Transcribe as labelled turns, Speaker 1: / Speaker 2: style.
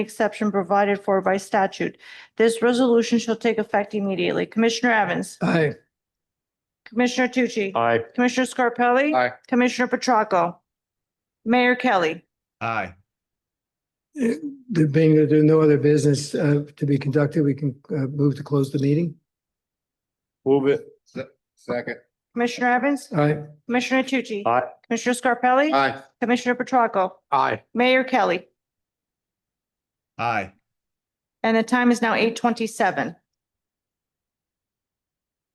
Speaker 1: exception provided for by statute. This resolution shall take effect immediately. Commissioner Evans?
Speaker 2: Aye.
Speaker 1: Commissioner Tucci?
Speaker 2: Aye.
Speaker 1: Commissioner Scarpelli?
Speaker 2: Aye.
Speaker 1: Commissioner Petracca? Mayor Kelly?
Speaker 3: Aye.
Speaker 2: There eh, being, that there are no other business uh, to be conducted, we can uh, move to close the meeting.
Speaker 3: Move it.
Speaker 4: Second.
Speaker 1: Commissioner Evans?
Speaker 2: Aye.
Speaker 1: Commissioner Tucci?
Speaker 3: Aye.
Speaker 1: Commissioner Scarpelli?
Speaker 4: Aye.
Speaker 1: Commissioner Petracca?
Speaker 3: Aye.
Speaker 1: Mayor Kelly?
Speaker 3: Aye.
Speaker 1: And the time is now eight twenty-seven.